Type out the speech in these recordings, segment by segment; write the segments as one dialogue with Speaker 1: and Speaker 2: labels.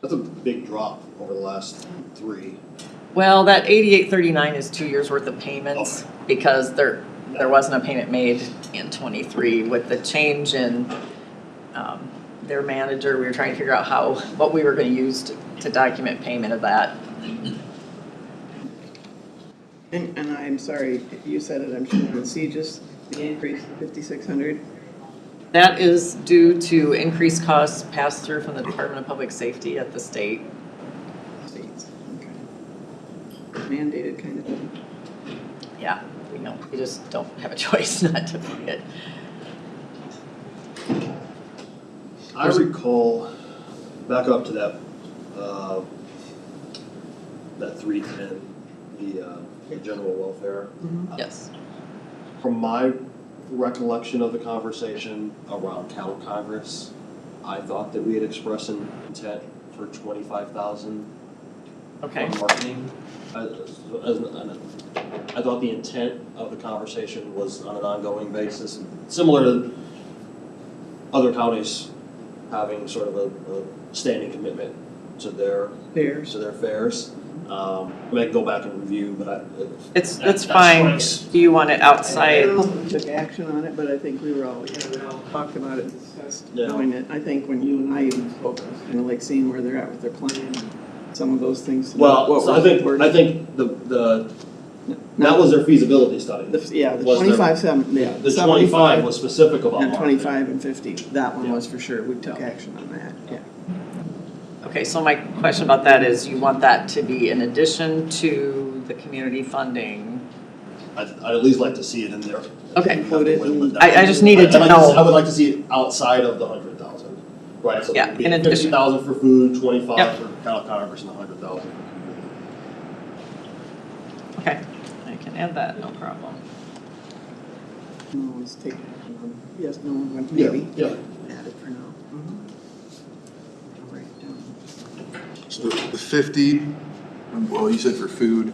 Speaker 1: That's a big drop over the last three.
Speaker 2: Well, that eighty-eight thirty-nine is two years' worth of payments, because there, there wasn't a payment made in twenty-three with the change in, um, their manager, we were trying to figure out how, what we were gonna use to, to document payment of that.
Speaker 3: And, and I'm sorry, you said it, I'm sure, but see, just the increase to fifty-six hundred?
Speaker 2: That is due to increased costs passed through from the Department of Public Safety at the state.
Speaker 3: States, okay. Mandated kind of thing.
Speaker 2: Yeah, we know, we just don't have a choice not to pay it.
Speaker 1: I recall, back up to that, uh, that three ten, the, uh, the general welfare.
Speaker 2: Yes,
Speaker 1: From my recollection of the conversation around town congress, I thought that we had expressed an intent for twenty-five thousand
Speaker 2: okay.
Speaker 1: on marketing. I- as an- an- I thought the intent of the conversation was on an ongoing basis, similar to other counties having sort of a, a standing commitment to their,
Speaker 3: There's,
Speaker 1: to their fairs. Um, I mean, I can go back and review, but I,
Speaker 2: It's,
Speaker 1: That-
Speaker 2: it's
Speaker 1: that's what
Speaker 2: fine,
Speaker 1: it's-
Speaker 2: do you want it
Speaker 3: I
Speaker 2: outside?
Speaker 3: don't know if we took action on it, but I think we were all, yeah, we all talked about it, discussed
Speaker 1: Yeah.
Speaker 3: doing it. I think when you and I even spoke, kind of like seeing where they're at with their plan, and some of those things. what
Speaker 1: well, so I
Speaker 3: we're-
Speaker 1: think,
Speaker 3: we're-
Speaker 1: I think the, the, that
Speaker 3: not-
Speaker 1: was their feasibility study.
Speaker 3: the- Yeah, the
Speaker 1: was their-
Speaker 3: twenty-five, seven, yeah.
Speaker 1: The
Speaker 3: 75,
Speaker 1: twenty-five was specific about
Speaker 3: And
Speaker 1: marketing.
Speaker 3: twenty-five and fifty, that one
Speaker 1: Yeah.
Speaker 3: was for sure, we took
Speaker 1: Yeah.
Speaker 3: action on that, yeah.
Speaker 2: Okay, so my question about that is, you want that to be in addition to the community funding?
Speaker 1: I'd, I'd at least like to see it in there.
Speaker 2: Okay.
Speaker 3: Included in-
Speaker 2: I- I just needed to
Speaker 1: I'd like s-
Speaker 2: know.
Speaker 1: I would like to see it outside of the hundred thousand, right, so
Speaker 2: Yeah,
Speaker 1: it'd be
Speaker 2: in addition.
Speaker 1: fifty thousand for food, twenty-five
Speaker 2: Yep.
Speaker 1: for town congress, and a hundred thousand.
Speaker 2: Okay, I can add that, no problem.
Speaker 3: No, always take, um, yes, no one went, maybe.
Speaker 1: Yeah, Mm-hmm.
Speaker 3: Add it for now. I'll write it down.
Speaker 4: So the the fifty, well, you said for food,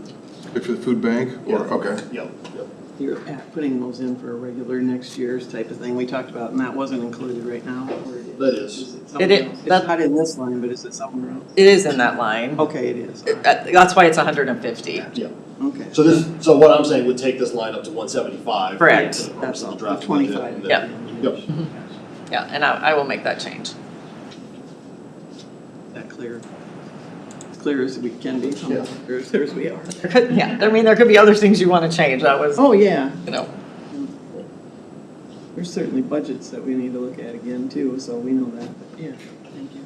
Speaker 4: like for the food bank, or,
Speaker 1: Yeah.
Speaker 4: okay.
Speaker 1: yeah, yeah.
Speaker 3: You're at- putting those in for a regular next year's type of thing we talked about, and that wasn't included right now, or it is?
Speaker 1: That is.
Speaker 3: it
Speaker 2: It
Speaker 3: somewhere
Speaker 2: is.
Speaker 3: else? It's
Speaker 2: That-
Speaker 3: not in this line, but is it somewhere else?
Speaker 2: It is in that line,
Speaker 3: Okay, it is,
Speaker 2: It- that- that's why it's hundred and fifty.
Speaker 3: okay.
Speaker 1: So this, so what I'm saying would take this line up to one seventy-five.
Speaker 2: Correct.
Speaker 1: For the purpose
Speaker 3: That's
Speaker 1: of
Speaker 3: all,
Speaker 1: the
Speaker 3: the
Speaker 1: draft
Speaker 3: twenty-five.
Speaker 1: budget.
Speaker 2: Yep.
Speaker 1: Yep.
Speaker 2: Yeah, and I, I will make that change.
Speaker 3: That clear, as clear as we can be,
Speaker 1: Yeah.
Speaker 3: as clear as- clear as we are.
Speaker 2: There could, yeah, I mean, there could be other things you wanna change, that was,
Speaker 3: Oh, yeah,
Speaker 2: you know,
Speaker 3: there's certainly budgets that we need to look at again too, so we know that, but yeah, thank you.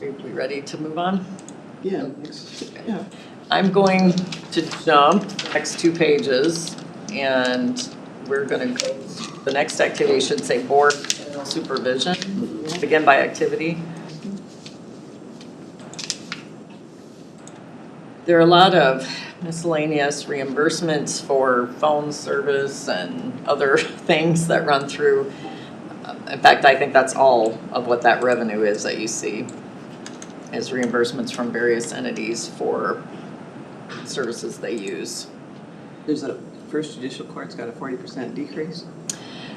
Speaker 2: we we ready to move on?
Speaker 3: Yeah, next, yeah,
Speaker 2: I'm going to jump next two pages and we're gonna go, the next activity should say board supervision, begin by activity. There are a lot of miscellaneous reimbursements for phone service and other things that run through. In fact, I think that's all of what that revenue is that you see, is reimbursements from various entities for services they use.
Speaker 3: there's a, first judicial court's got a forty percent decrease.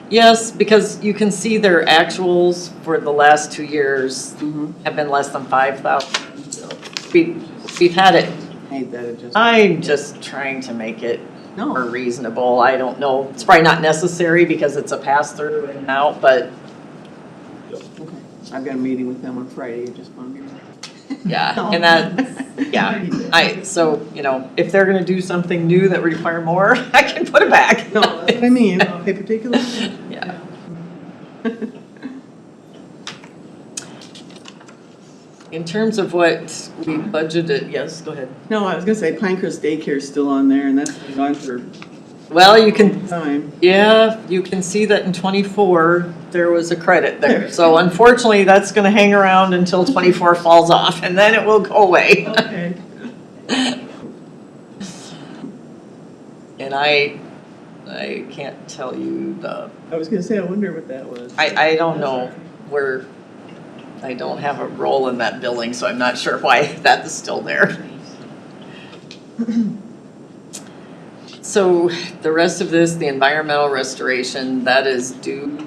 Speaker 2: Yes, because you can see their actuals for the last two years
Speaker 3: Mm-hmm.
Speaker 2: have been less than five thousand. We, we've had it,
Speaker 3: Made that adjustment.
Speaker 2: I'm just trying to make it more
Speaker 3: No,
Speaker 2: reasonable, I don't know, it's probably not necessary because it's a pass-through and out, but
Speaker 3: okay, I've got a meeting with them on Friday, you just want to be.
Speaker 2: yeah, and that, yeah, I, so, you know, if they're gonna do something new that require more, I can put it back.
Speaker 3: No, that's what I mean, a particular.
Speaker 2: Yeah. In terms of what we budgeted, yes, go ahead.
Speaker 3: No, I was gonna say Pinecrest Daycare's still on there and that's been gone for
Speaker 2: Well, you can,
Speaker 3: time.
Speaker 2: yeah, you can see that in twenty-four, there was a credit there. So unfortunately, that's gonna hang around until twenty-four falls off and then it will go away.
Speaker 3: Okay.
Speaker 2: And I, I can't tell you the,
Speaker 3: I was gonna say, I wonder what that was.
Speaker 2: I, I don't know where, I don't have a role in that billing, so I'm not sure why that is still there. So the rest of this, the environmental restoration, that is due